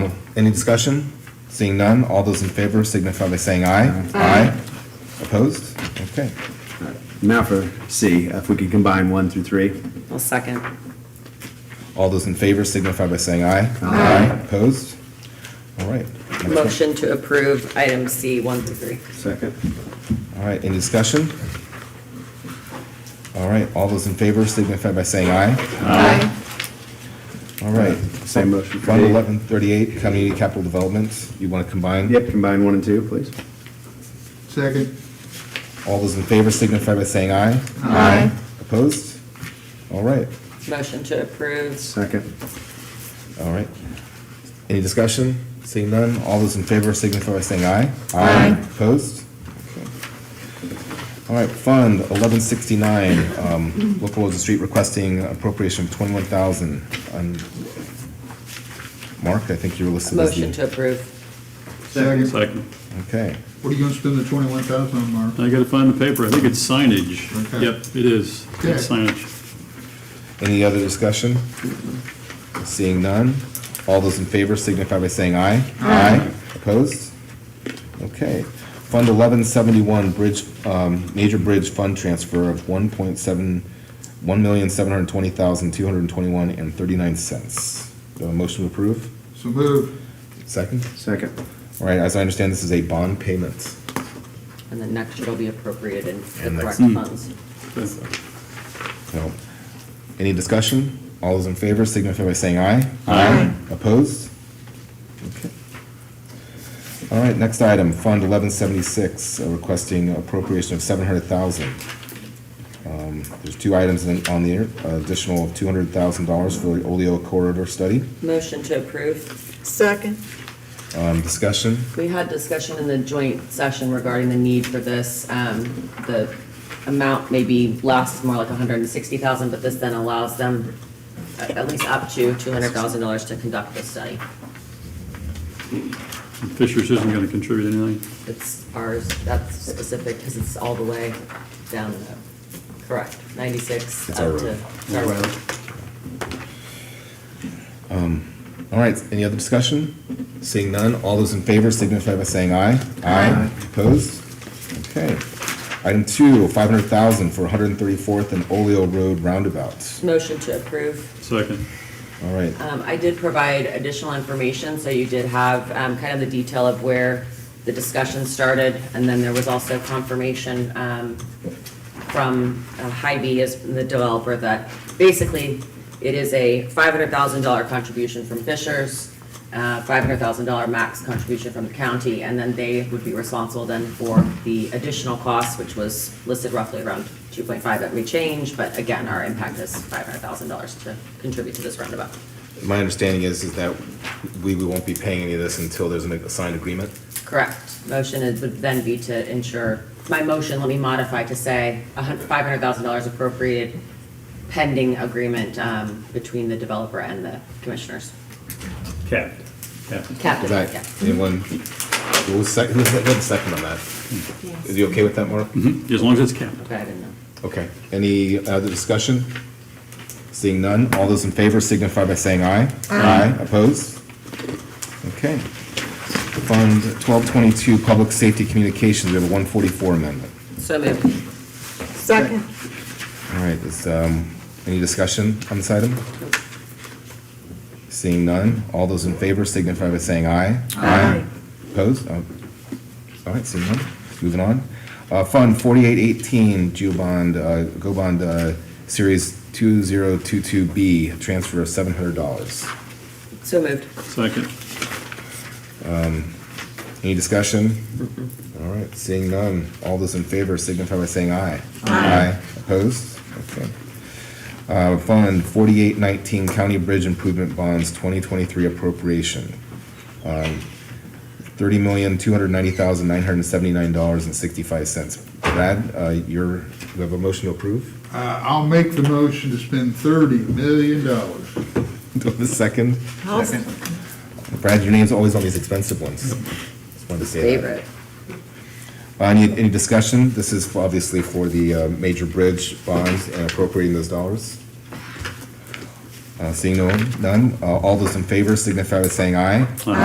Any discussion? Seeing none, all those in favor signify by saying aye. Aye. Opposed? Okay. Now for C, if we could combine one through three. I'll second. All those in favor signify by saying aye. Aye. Opposed? All right. Next one. Motion to approve item C, one through three. Second. All right, any discussion? All right, all those in favor signify by saying aye. Aye. All right. Same motion for Fund D. eleven thirty-eight, community capital development, you want to combine? Yep, combine one and two, please. Second. All those in favor signify by saying aye. Aye. Opposed? All right, Motion to approve. Second. all right. Any discussion? Seeing none, all those in favor signify by saying aye. Aye. Opposed? Okay. All right, Fund eleven sixty-nine, um, local roads and street requesting appropriation of twenty-one thousand. Mark, I think you were listed as the. Motion to approve. Second. Second. Okay, What are you gonna spend the twenty-one thousand on, Mark? I gotta find the paper. I think it's signage. Okay. Yep, it is. It's Okay. signage. any other discussion? Seeing none, all those in favor signify by saying aye. Aye. Opposed? Okay. Fund eleven seventy-one, bridge, um, major bridge fund transfer of one point seven, one million, seven hundred twenty thousand, two hundred twenty-one and thirty-nine cents. Do I have a motion to approve? So move. Second? Second. All right, as I understand, this is a bond payment. And then next year it'll be appropriated in And the next- correct funds. So, any discussion? All those in favor signify by saying aye. Aye. Opposed? Okay. All right, next item, Fund eleven seventy-six, uh, requesting appropriation of seven hundred thousand. Um, there's two items in- on the, uh, additional of two hundred thousand dollars for the Oleo corridor study. Motion to approve. Second. Um, discussion? We had discussion in the joint session regarding the need for this. Um, The amount maybe lasts more like 160,000, but this then allows them uh, at at least up to $200,000 to conduct the study. Fisher's isn't gonna contribute anything. It's ours, that's specific, because it's all the way down, the- correct, 96 It's up our to. road. it's our road. All right, any other discussion? Seeing none, all those in favor signify by saying aye. Aye. Opposed? Okay. Item two, five hundred thousand for one hundred and thirty-fourth and Oleo Road roundabouts. Motion to approve. Second. All right, Um, I did provide additional information, so you did have um, kind of the detail of where the discussion started, and then there was also confirmation um, from uh, Hy-Vee as the developer that basically it is a $500,000 contribution from Fishers, uh, $500,000 max contribution from the county, and then they would be responsible then for the additional costs, which was listed roughly around 2.5 that we changed, but again, our impact is $500,000 to contribute to this roundabout. my understanding is, is that we, we won't be paying any of this until there's a signed agreement. Correct. Motion is- would then be to ensure, my motion, let me modify to say five hundred thousand dollars appropriated pending agreement um, between the developer and the commissioners. Cap. Cap. Is Captain, that, yeah. anyone, who was second, who was the second on that? Is you okay with that, Mark? Mhm, As long as it's capped. Okay, I didn't know. Okay, any other discussion? Seeing none, all those in favor signify by saying aye. Aye. Opposed? Okay. Fund twelve twenty-two, Public Safety Communications, we have a one forty-four amendment. So moved. Second. All right, is, um, any discussion on this item? Seeing none, all those in favor signify by saying aye. Aye. Opposed? Oh, All right, seeing none, moving on. Uh, Fund forty-eight eighteen, Geobond, uh, Go Bond, uh, Series two zero two two B, transfer of seven hundred dollars. So moved. Second. Any discussion? All right, seeing none, all those in favor signify by saying aye. Aye. Opposed? Okay. Uh, Fund forty-eight nineteen, County Bridge Improvement Bonds, twenty twenty-three appropriation. Um, Thirty million, two hundred ninety thousand, nine hundred seventy-nine dollars and sixty-five cents. Brad, uh, you're, you have a motion to approve? Uh, I'll make the motion to spend thirty million dollars. Do I have a second? I'll- Brad, your name's always on these expensive ones. Just wanted to say that. Favorite. Uh, Any, any discussion? This is for- obviously for the uh, major bridge bonds and appropriating those dollars. Uh, Seeing no, none, uh, all those in favor signify by saying aye.